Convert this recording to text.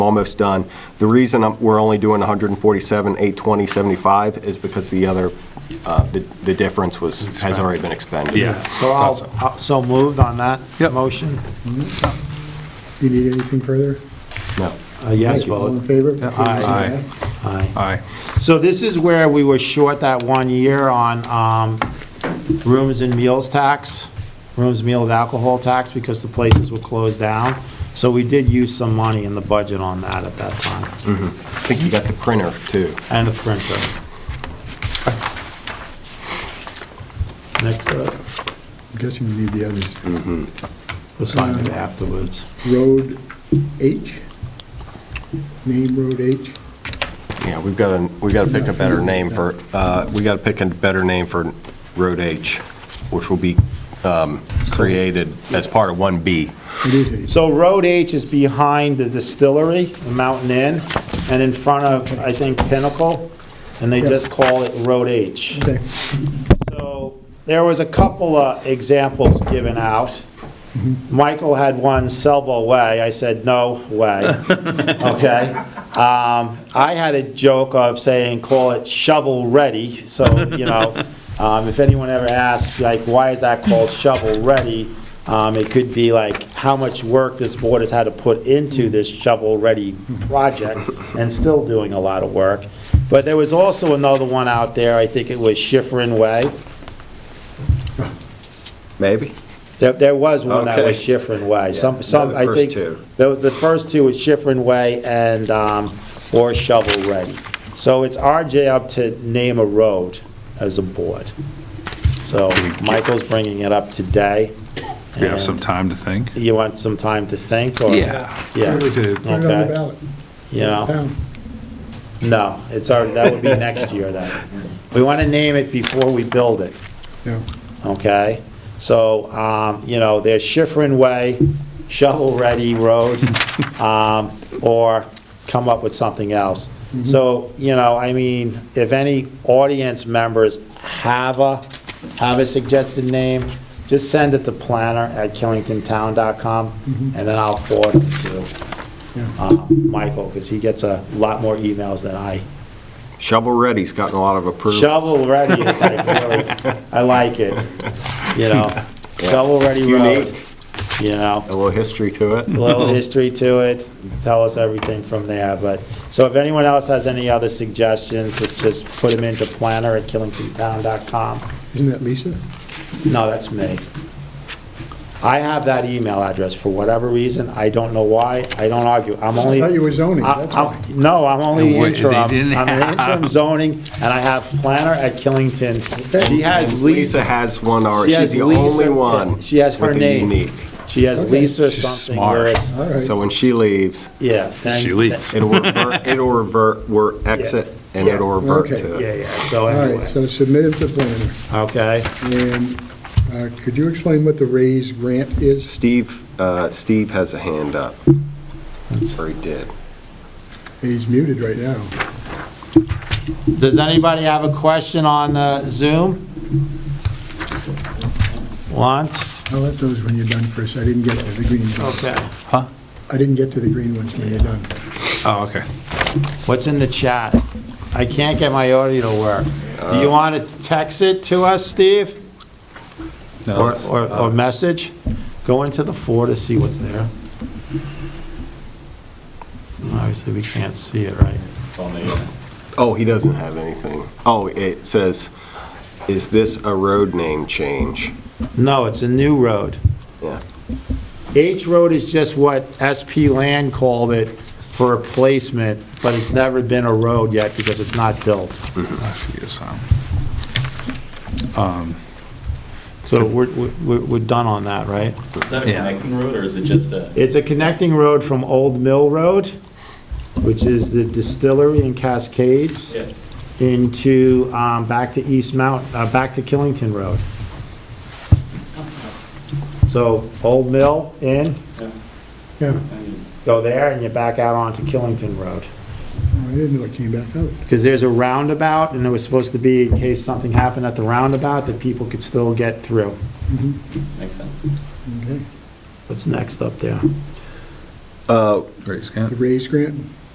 almost done. The reason I'm- we're only doing 147, 820, 75 is because the other, uh, the the difference was, has already been expended. Yeah. So I'll, I'll- so moved on that Yep. motion? You need anything further? No. A Uh, yes Thank you. All in vote? favor? Aye. Aye. Aye. So this is where we were short that one year on um, rooms and meals tax, rooms, meals, alcohol tax, because the places were closed down. So we did use some money in the budget on that at that time, I think you got the printer, too. and the printer. Next uh, up, I'm guessing you need the others. we'll sign it afterwards. Road H? Name Road H? Yeah, we've got to, we've got to pick a better name for, uh, we got to pick a better name for Road H, which will be um, created as part of 1B. It is H. So Road H is behind the distillery, the Mountain Inn, and in front of, I think, Pinnacle, and they just call it Road H. Okay. So there was a couple of examples given out. Michael had one, Selbo Way. I said, no way. Okay? Um, I had a joke of saying, call it shovel ready. So, you know, um, if anyone ever asks, like, why is that called shovel ready? Um, it could be like, how much work this board has had to put into this shovel ready project and still doing a lot of work. But there was also another one out there, I think it was Schifrin Way. Maybe? There, there was one that was Okay. Schifrin Way, some, some, the I first think. two. There was, the first two was Schifrin Way and, um, or Shovel Ready. So it's our job to name a road as a board. So Michael's bringing it up today. We have some and time to think. You want some time to think, or? Yeah, We could- Put it on Okay. the ballot. you know, Town. no, it's our, that would be next year then. We want to name it before we build it. Yeah. okay? So, um, you know, there's Schifrin Way, Shovel Ready Road, um, or come up with something else. So, you know, I mean, if any audience members have a, have a suggested name, just send it to planner@killingtontown.com, and then I'll forward it Yeah. to um, Michael, because he gets a lot more emails than I. Shovel Ready's gotten a lot of approval. Shovel ready is like, really, I like it, you know, shovel ready road, Unique. you know, A little history to it. a little history to it, tell us everything from there, but, so if anyone else has any other suggestions, let's just put them into planner at killingtontown.com. Isn't that Lisa? No, that's me. I have that email address for whatever reason, I don't know why, I don't argue, I'm only. thought you were zoning, I- that's I'm- why. No, I'm only And what- they interim, I'm didn't an interim have- zoning, and I have planner at Killington. She has Lisa Lisa, has one already. She has She's the Lisa- only one. She has her with a name. unique. she has Okay. Lisa She's something, smart. whereas, All right. So when she leaves, yeah. then- She leaves. it'll revert, it'll revert, we're exit, and Yeah. it'll revert Okay. to. Yeah, yeah, so All right, anyway, so submit it to planner. okay, And uh, could you explain what the raise grant is? Steve, uh, Steve has a hand up. Or he did. He's muted right now. does anybody have a question on the Zoom? Once, I'll let those when you're done, Chris. I didn't get to the green ones. okay, I didn't get to the green ones when you're done. Oh, okay. what's in the chat? I can't get my audio to work. Do you want to text it to us, Steve? Or, it's- or, or message? Go into the four to see what's there. Obviously, we can't see it, right? Oh, he doesn't have anything. Oh, it says, is this a road name change? No, it's a new road. Yeah. H Road is just what SP Land called it for a placement, but it's never been a road yet because it's not built. I forget his name. Um, So we're, we're, we're done on that, right? Is that a Yeah. connecting road, or is it just a? It's a connecting road from Old Mill Road, which is the distillery in Cascades, Yeah. into, um, back to East Mount, uh, back to Killington Road. So Old Mill in, Yeah, go there, and you're back out onto Killington Road. I didn't know it came back out. Because there's a roundabout, and there was supposed to be, in case something happened at the roundabout, that people could still get through. Makes sense. Okay. What's next up there? Great, Scott. the raise grant?